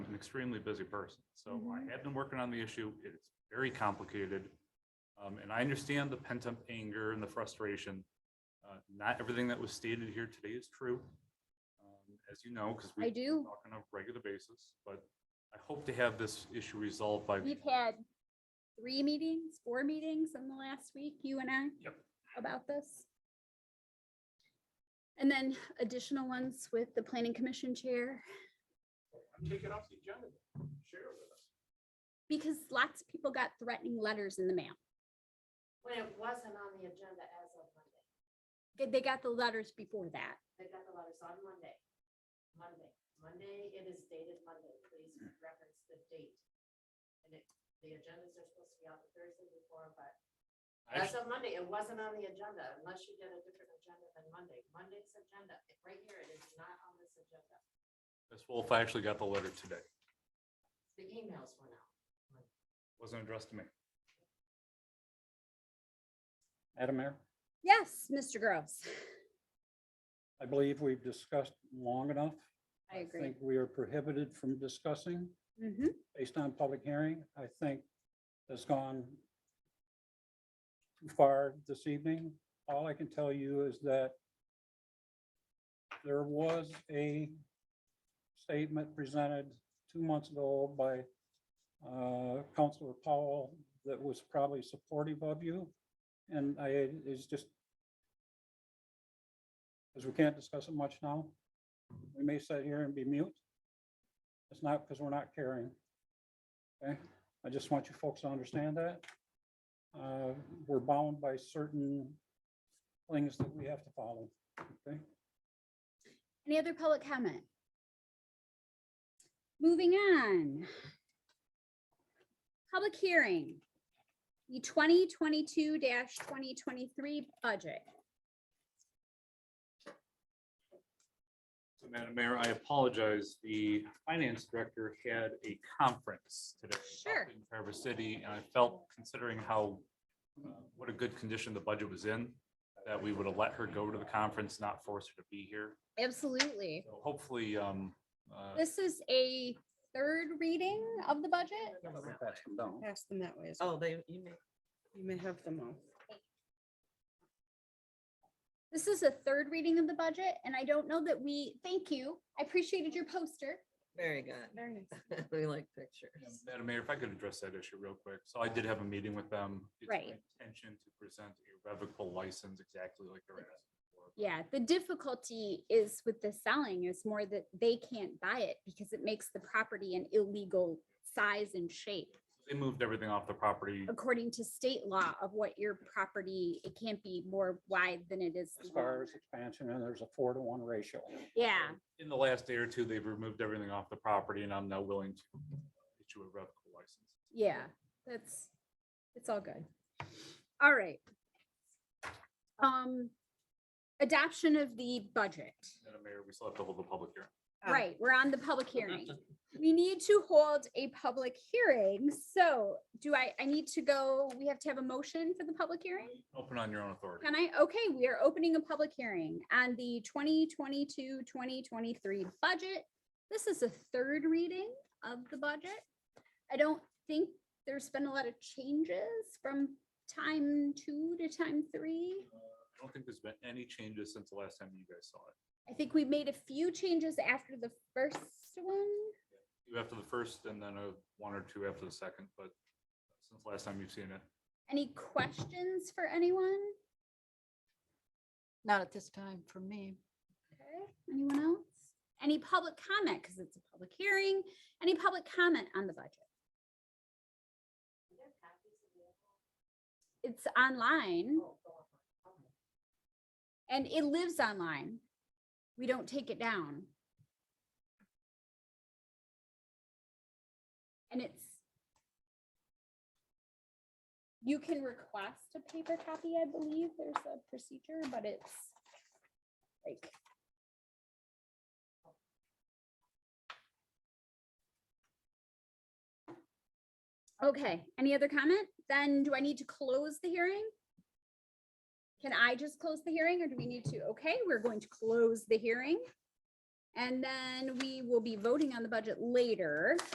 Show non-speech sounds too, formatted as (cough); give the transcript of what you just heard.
extremely busy person. So Mhm. I have been working on the issue. It's very complicated. Um, and I understand the pent up anger and the frustration. Uh, not everything that was stated here today is true. um, As you know, because we I do. talk on a regular basis, but I hope to have this issue resolved by. the We've had three meetings, four meetings in the last week, you and I. Yep. About this. And then additional ones with the planning commission chair, Take it off the agenda. Share it with us. because lots of people got threatening letters in the mail. When it wasn't on the agenda as of Monday. They- They got the letters before that. They got the letters on Monday. Monday, Monday, it is dated Monday. Please reference the date. And it, the agendas are supposed to be out the Thursday before, but as of Monday, it wasn't on the agenda unless you did a different agenda than Monday. Monday's agenda, it- right here, it is not on this agenda. Ms. Wolf, I actually got the letter today. It The emails went out. Wasn't addressed to me. Madam Mayor, Yes, Mr. Gross. I believe we've discussed long enough. I agree. think we are prohibited from discussing Mhm. based on public hearing. I think has gone too far this evening. All I can tell you is that there was a statement presented two months ago by uh, Councilor Powell that was probably supportive of you. And I, it's just, because we can't discuss it much now, we may sit here and be mute. It's not because we're not caring. Okay, I just want you folks to understand that. Uh, We're bound by certain things that we have to follow, okay? Any other public comment? Moving on. Public hearing. The twenty twenty-two twenty twenty-three budget. So, Madam Mayor, I apologize. The finance director had a conference today. up Sure. In Traverse City, and I felt considering how, uh, what a good condition the budget was in, that we would have let her go to the conference, not force her to be here. Absolutely. So Hopefully, um, uh, This is a third reading of the budget. Pass them that way as well. Oh, they, you may. You may have them all. This is a third reading of the budget, and I don't know that we, thank you. I appreciated your poster. Very good. (laughs) Very nice. We like pictures. Madam Mayor, if I could address that issue real quick. So I did have a meeting with them. It's my Right. Intention to present a revocable license exactly like they're asking for. Yeah, the difficulty is with the selling is more that they can't buy it because it makes the property an illegal size and shape. They moved everything off the property. According to state law of what your property, it can't be more wide than it is. As far long. as expansion, and there's a four to one ratio. Yeah, In the last day or two, they've removed everything off the property and I'm now willing to issue a revocable license. yeah, that's, it's all good. All right. Um, adoption of the budget. Madam Mayor, we still have to hold the public hearing. Ah. Right, we're on the public hearing. We need to hold a public hearing, so do I, I need to go, we have to have a motion for the public hearing? Open on your own authority. Can I, okay, we are opening a public hearing on the 2022-2023 budget. This is a third reading of the budget. I don't think there's been a lot of changes from time two to time three. Uh, I don't think there's been any changes since the last time you guys saw it. I think we made a few changes after the first one. You after the first and then a one or two after the second, but since last time you've seen it. Any questions for anyone? Not at this time for me. Okay, anyone else? Any public comment, because it's a public hearing, any public comment on the budget? Are there copies available? It's online Oh, go on. Okay. and it lives online. We don't take it down. And it's you can request a paper copy, I believe. There's a procedure, but it's like Okay, any other comment? Then do I need to close the hearing? Can I just close the hearing or do we need to? Okay, we're going to close the hearing. And then we will be voting on the budget later.